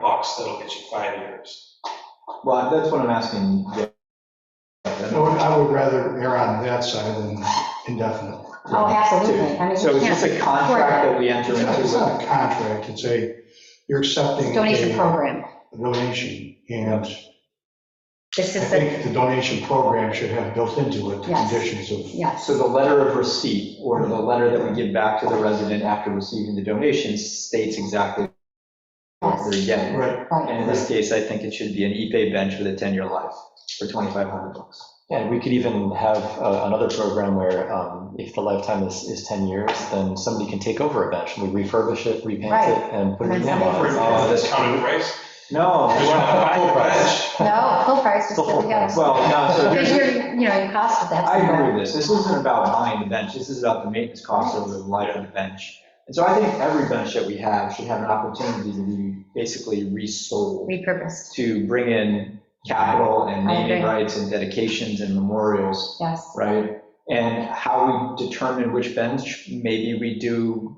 house, that'll get you five years. Well, that's what I'm asking. yeah. I would- I would rather err on that side than indefinite. Oh, absolutely. I mean, So you is this can't, a contract that we enter It's into? not- it's with- not a contract, it's a, you're accepting. a donation program. Donation, and This I is the, think the donation program should have built into it the Yes. conditions of, yes, So the letter of receipt, or the letter that we give back to the resident after receiving the donation states exactly what they're yes, getting. right, And in right. this case, I think it should be an ePay bench with a 10-year life for 2,500 bucks. And we could even have uh, another program where um, if the lifetime is, is 10 years, then somebody can take over a bench. We refurbish it, repaint Right. it, and put And it then in For somebody- on. a discounted price, No. because you're not buying a bench. No, full price, just, Full we price. got Well, no, so because here's, you're, you know, your cost of that's. I agree with this. This isn't about buying the bench. This is about the maintenance costs over the life of the bench. And so I think every bench that we have should have an opportunity to be basically resold Repurposed, to bring in capital and I naming agree. rights and dedications and memorials yes. right? And how we determine which bench, maybe we do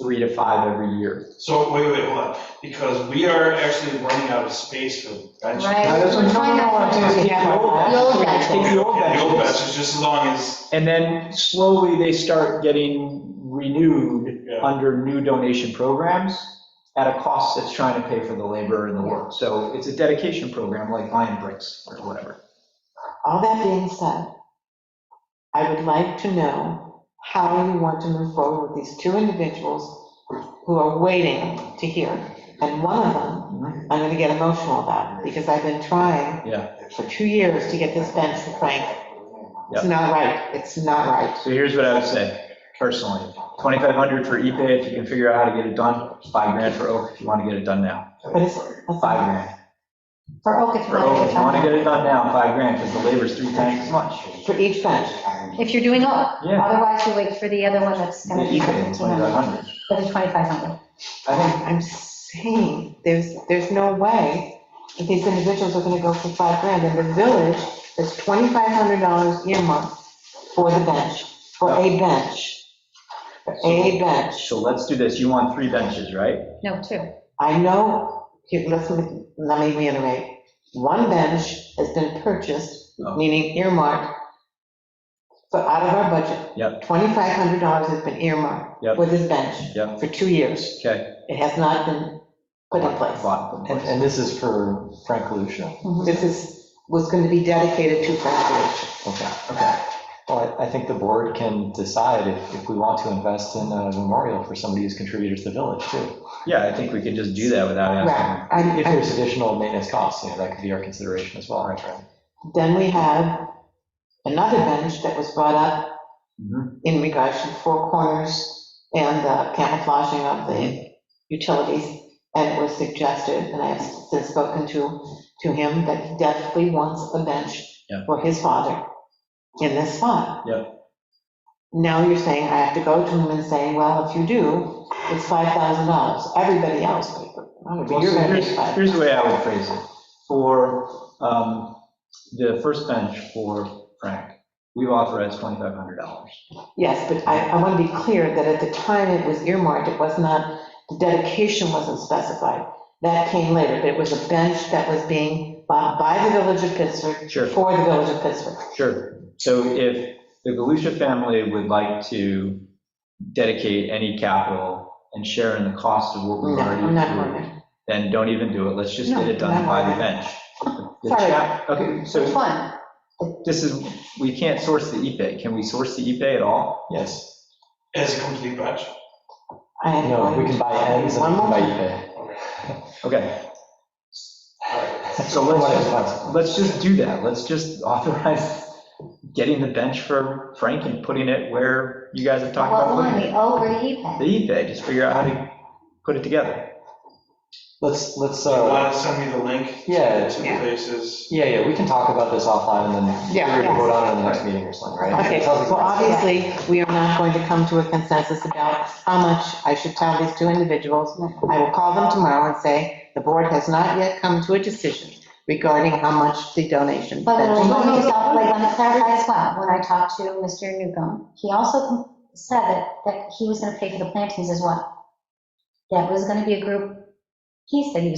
three to five every year. So wait, wait, hold on, because we are actually running out of space for benches. Right. Now, that's what- no, no, no, I'm saying is keep the old benches. The old benches. Keep the old Yeah, the old benches. benches, just as long as, And then slowly they start getting renewed yeah, under new donation programs at a cost that's trying to pay for the labor and the work. So it's a dedication program like Lion Bricks or whatever. All that being said, I would like to know how you want to move forward with these two individuals who are waiting to hear. And one of them, Mm-hmm. I'm gonna get emotional about, because I've been trying Yeah. for two years to get this bench for Frank. It's not right, it's not right. So here's what I would say personally, 2,500 for ePay if you can figure out how to get it done, five grand for Oak if you want to get it done now, But it's, that's five not- grand. For Oak, it's For Oak, if you want to not. get it done now, five grand, because the labor's three times as much. for each bench. If you're doing Oak, Yeah. otherwise you wait for the other one that's The going to be. eBay is 2,500. For the 2,500. I think, I'm saying, there's, there's no way that these individuals are gonna go for five grand, and the village is twenty-five hundred dollars earmarked for the bench, for a bench, for a bench. so let's do this, you want three benches, right? No, two. I know, here, listen, let me reiterate, one bench has been purchased, Oh. meaning earmarked, so out of our budget. Yep. Twenty-five hundred dollars has been earmarked Yep. for this bench Yep. for two years. Okay. It has not been put in place. Bought them. And and this is for Frank Lucia. This is, was going to be dedicated to Frank Village. Okay, okay. Well, I I think the board can decide if, if we want to invest in a memorial for somebody who's contributed to the village too. Yeah, I think we could just do that without asking. Right. I'm- If I'm- there's additional maintenance costs, you know, that could be our consideration as well, right, Frank? Then we have another bench that was brought up Mhm. in regards to Four Corners and the camouflaging of the utilities. And it was suggested, and I have since spoken to, to him, that he definitely wants a bench Yeah. for his father in this spot. Yeah. Now you're saying I have to go to him and say, well, if you do, it's $5,000. Everybody else, you're Well, so going to Here's pay five. here's the way I would phrase it. For um, the first bench for Frank, we've authorized $2,500. Yes, but I, I want to be clear that at the time it was earmarked, it was not, the dedication wasn't specified. That came later, but it was a bench that was being bought by the village of Pittsburgh Sure. for the village of Pittsburgh. Sure. So if the Galusha family would like to dedicate any capital and share in the cost of what No, we've already I'm not going approved, there. then don't even do it. Let's just get it No, done no, by no. the bench. The Sorry. chap- Okay, Which so one? this is, we can't source the e Can we source the e at all? Yes. as a complete bench. I am No, going- we can buy ends and One we can more buy time. eBay. Okay, So let's just- let's just do that. Let's just authorize getting the bench for Frank and putting it where you guys have talked What about one, putting the it. Oak or the E-Pay? The e just figure out how to put it together. Let's, let's, Do you uh, want to send me the link yeah, to the Yeah. places? yeah, yeah, we can talk about this offline and then Yeah, we're gonna yeah. vote on it in the next meeting or something, right? Okay, Sounds like- well, obviously, we are not going to come to a consensus about how much I should tell these two individuals. I will call them tomorrow and say, the board has not yet come to a decision regarding how much the donation. But bench when is. I told myself, like, on Saturday as well, when I talked to Mr. Newcomb, he also com- said that, that he was gonna pay for the plantings as well. That was gonna be a group, he said he was